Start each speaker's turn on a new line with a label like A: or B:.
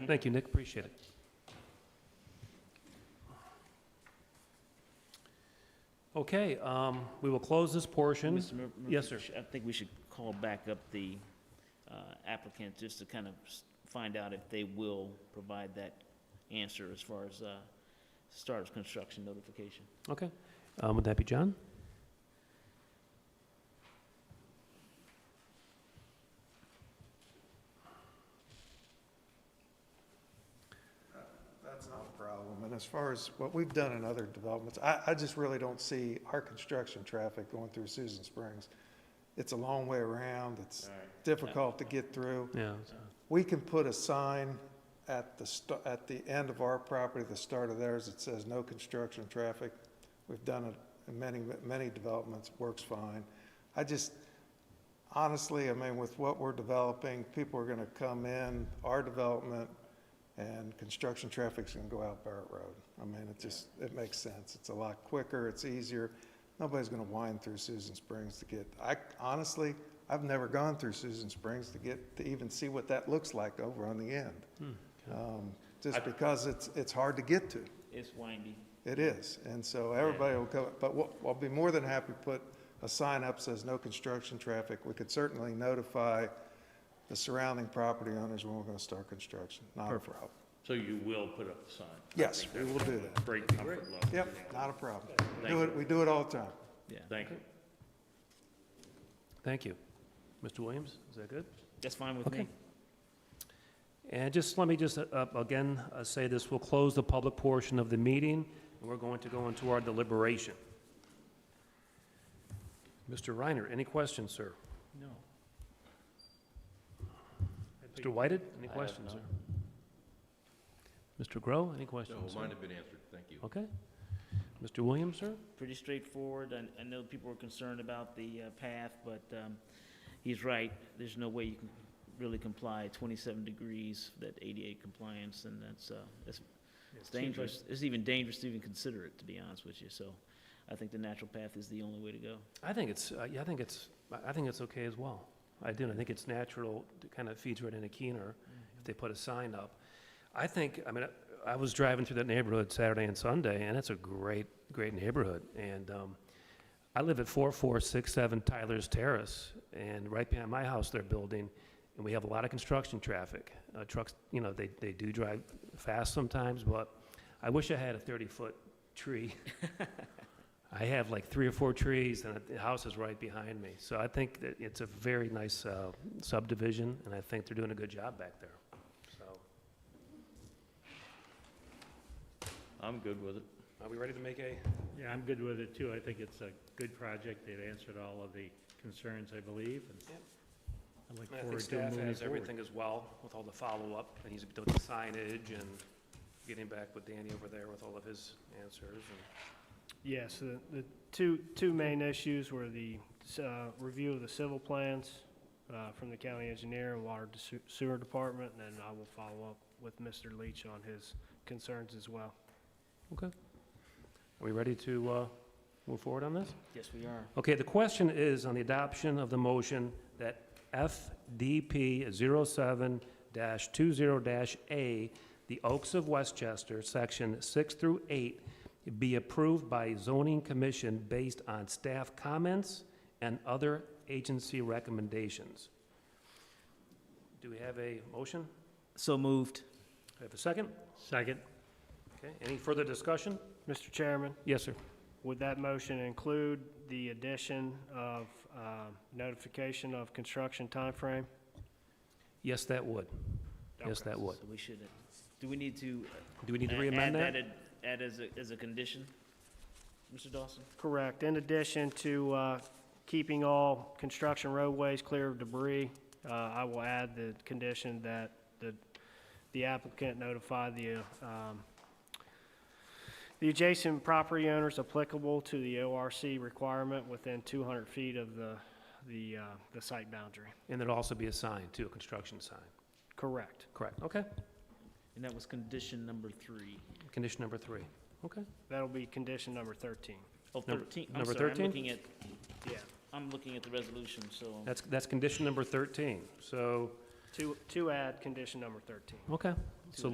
A: Thank you, Nick, appreciate it. Okay, um, we will close this portion.
B: Mr. Mur-
A: Yes,
B: Murphy, I think we should call back up the uh, applicant just to kind of s- find out if they will provide that answer as far as uh, start of construction notification.
A: Okay, um, would that be John?
C: That's not a problem. And as far as what we've done in other developments, I, I just really don't see our construction traffic going through Susan Springs. It's a long way around. It's difficult to get through.
A: Yeah, so-
C: We can put a sign at the, sta- at the end of our property, the start of theirs, that says no construction traffic. We've done it in many, many developments, works fine. I just, honestly, I mean, with what we're developing, people are gonna come in, our development, and construction traffic's gonna go out Barrett Road. I mean, it just, it makes sense. It's a lot quicker, it's easier. Nobody's gonna wind through Susan Springs to get, I honestly, I've never gone through Susan Springs to get, to even see what that looks like over on the end. Um, Just because it's, it's hard to get to.
B: It's windy.
C: It is, and so everybody will come, but we'll- I'll be more than happy to put a sign up says no construction traffic. We could certainly notify the surrounding property owners when we're gonna start construction, not a problem.
D: So you will put up the sign?
C: Yes, we will do that.
D: Great comfort level.
C: Yep, not a problem. We
D: Thank
C: Do it, we do it all the time.
B: Yeah,
D: Thank you.
A: Thank you. Mr. Williams, is that good?
B: that's fine with
A: Okay.
B: me.
A: And just, let me just, uh, uh, again, uh, say this, we'll close the public portion of the meeting, and we're going to go into our deliberation. Mr. Reiner, any questions, sir?
B: No.
A: Mr. Whited, any
D: I have
A: questions, sir?
D: none.
A: Mr. Grow, any
E: No,
A: questions? sir?
E: mine have been answered, thank you.
A: Okay. Mr. Williams, sir?
B: Pretty straightforward. I, I know people were concerned about the uh, path, but um, he's right. There's no way you can really comply 27 degrees, that 88 compliance, and that's, uh, that's It's dangerous, it's even dangerous to even consider it, to be honest with you, so I think the natural path is the only way to go.
A: I think it's, uh, yeah, I think it's, I- I think it's okay as well. I do, and I think it's natural, to kind of feeds right into Keener if they put a sign up. I think, I mean, I- I was driving through that neighborhood Saturday and Sunday, and it's a great, great neighborhood. And um, I live at 4467 Tyler's Terrace, and right behind my house, they're building, and we have a lot of construction traffic. Uh, Trucks, you know, they, they do drive fast sometimes, but I wish I had a 30-foot tree I have like three or four trees, and the house is right behind me. So I think that it's a very nice uh, subdivision, and I think they're doing a good job back there. So,
D: I'm good with it.
A: are we ready to make a,
F: Yeah, I'm good with it, too. I think it's a good project. They've answered all of the concerns, I believe, and
A: Yep.
F: I look
A: I
F: forward
A: think
F: to
A: staff
F: moving
A: has
F: forward.
A: everything as well with all the follow-up, and he's doing the signage and getting back with Danny over there with all of his answers.
G: Yes, the, the two, two main issues were the, uh, review of the civil plans, uh, from the county engineer and water to sewer department, and then I will follow up with Mr. Leach on his concerns as well.
A: Are we ready to uh, move forward on this?
B: Yes, we are.
A: Okay, the question is on the adoption of the motion that FDP 07-20-A, the Oaks of Westchester, Section 6 through 8, be approved by zoning commission based on staff comments and other agency recommendations. Do we have a motion?
B: So moved.
A: Do we have a second?
F: Second?
A: Okay, any further discussion?
G: Mr. Chairman,
A: Yes, sir.
G: would that motion include the addition of, um, notification of construction timeframe?
A: Yes, that would. Yes, that would.
B: So we should, do we need to? uh,
A: Do we need to
B: a-
A: re-amend that?
B: add ad- Add as a, as a condition, Mr. Dawson?
G: Correct. In addition to uh, keeping all construction roadways clear of debris, uh, I will add the condition that the the applicant notify the uh, um, the adjacent property owners applicable to the ORC requirement within 200 feet of the the uh, the site boundary.
A: And there'd also be a sign, too, a construction sign.
G: Correct.
A: Correct, okay.
B: And that was condition number three.
A: Condition number three, okay.
G: That'll be condition number 13.
B: Oh,
A: Number-
B: 13 I'm
A: number
B: sorry, I'm
A: 13?
B: looking at,
G: Yeah.
B: I'm looking at the resolution, so.
A: That's, that's condition number 13, so,
G: To to add condition number 13.
A: okay,